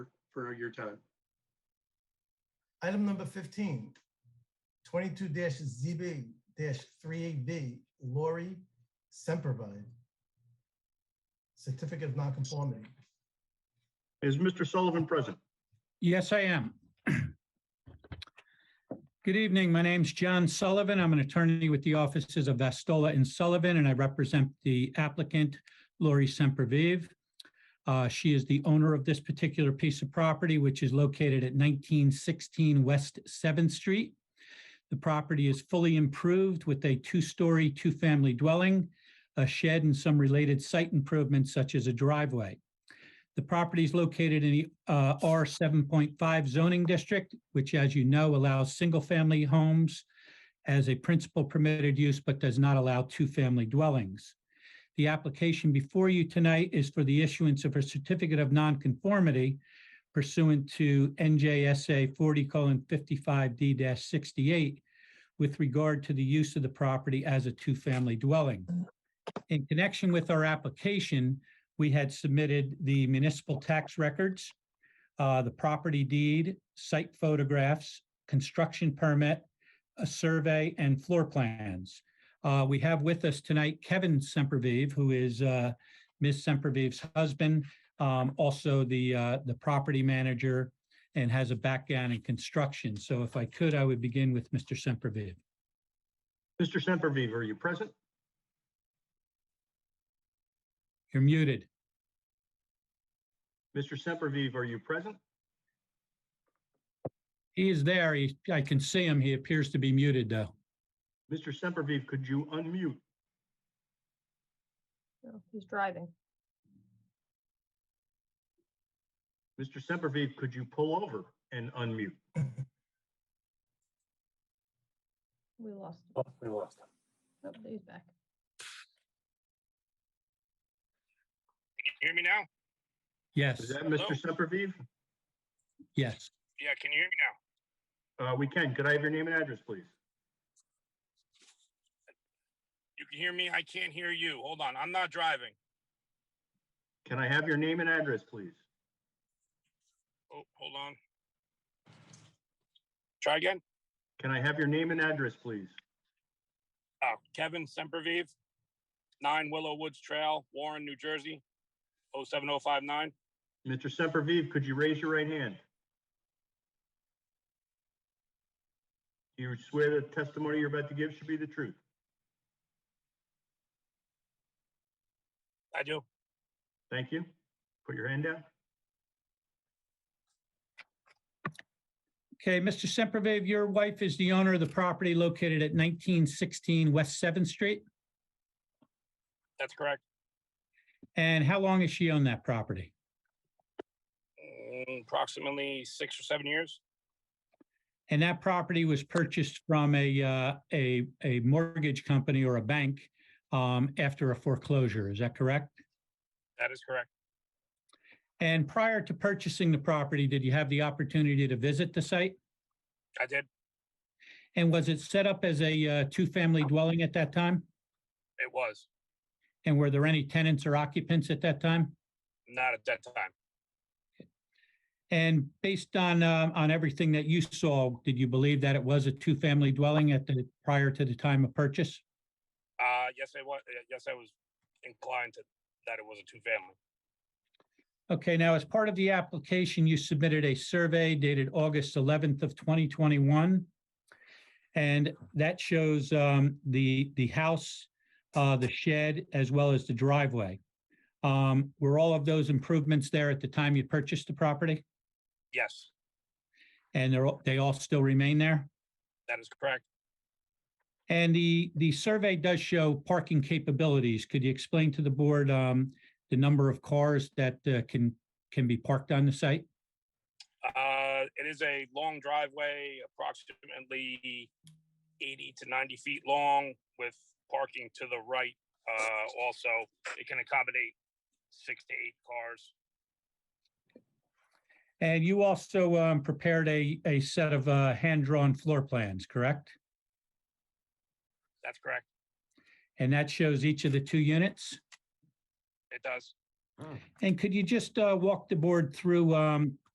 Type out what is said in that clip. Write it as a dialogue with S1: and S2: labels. S1: for your time.
S2: Item number 15, 22-ZB-38B, Lori Sempervive. Certificate of Nonconformity.
S1: Is Mr. Sullivan present?
S3: Yes, I am. Good evening. My name's John Sullivan. I'm an attorney with the offices of Vastola and Sullivan, and I represent the applicant, Lori Sempervive. Uh, She is the owner of this particular piece of property, which is located at 1916 West 7th Street. The property is fully improved with a two-story, two-family dwelling, a shed, and some related site improvements such as a driveway. The property is located in the uh, R seven point five zoning district, which, as you know, allows single-family homes as a principal permitted use, but does not allow two-family dwellings. The application before you tonight is for the issuance of a certificate of nonconformity pursuant to NJSA forty fifty-five D sixty-eight with regard to the use of the property as a two-family dwelling. In connection with our application, we had submitted the municipal tax records, uh, the property deed, site photographs, construction permit, a survey, and floor plans. Uh, We have with us tonight Kevin Sempervive, who is uh, Ms. Sempervive's husband, um, also the, uh, the property manager, and has a background in construction. So if I could, I would begin with Mr. Sempervive.
S1: Mr. Sempervive, are you present?
S3: You're muted.
S1: Mr. Sempervive, are you present?
S3: He is there. He- I can see him. He appears to be muted, though.
S1: Mr. Sempervive, could you unmute?
S4: No, Oh, He's driving.
S1: Mr. Sempervive, could you pull over and unmute?
S4: We lost. him.
S5: Oh, we lost him.
S4: Nope, he's back.
S6: Can you hear me now?
S3: Yes,
S1: Is that Mr. Sempervive?
S3: yes.
S6: Yeah, can you hear me now?
S1: Uh, we can. Could I have your name and address, please?
S6: You can hear me? I can't hear you. Hold on, I'm not driving.
S1: Can I have your name and address, please?
S6: Oh, hold on. Try again.
S1: Can I have your name and address, please?
S6: Oh, Kevin Sempervive, nine Willow Woods Trail, Warren, New Jersey, oh seven oh five nine.
S1: Mr. Sempervive, could you raise your right hand? Do you swear the testimony you're about to give should be the truth?
S6: I do.
S1: Thank you. Put your hand down.
S3: Okay, Mr. Sempervive, your wife is the owner of the property located at 1916 West 7th Street.
S6: That's correct.
S3: And how long has she owned that property?
S6: Mm, Approximately six or seven years.
S3: And that property was purchased from a, uh, a, a mortgage company or a bank um, after a foreclosure, is that correct?
S6: That is correct.
S3: And prior to purchasing the property, did you have the opportunity to visit the site?
S6: I did.
S3: And was it set up as a uh, two-family dwelling at that time?
S6: It was
S3: And were there any tenants or occupants at that time?
S6: not at that time.
S3: And based on, um, on everything that you saw, did you believe that it was a two-family dwelling at the, prior to the time of purchase?
S6: Uh, yes, I was. Yes, I was inclined to that it was a two family.
S3: Okay, now as part of the application, you submitted a survey dated August 11th of 2021. And that shows um, the, the house, uh, the shed, as well as the driveway. Um, Were all of those improvements there at the time you purchased the property?
S6: Yes,
S3: And they're, all- they all still remain there?
S6: that is correct.
S3: And the, the survey does show parking capabilities. Could you explain to the board um, the number of cars that uh, can, can be parked on the site?
S6: Uh, it is a long driveway, approximately eighty to ninety feet long with parking to the right. Uh, also, it can accommodate six to eight cars.
S3: And you also um, prepared a, a set of uh, hand-drawn floor plans, correct?
S6: That's correct.
S3: And that shows each of the two units?
S6: It does.
S3: And could you just uh, walk the board through um,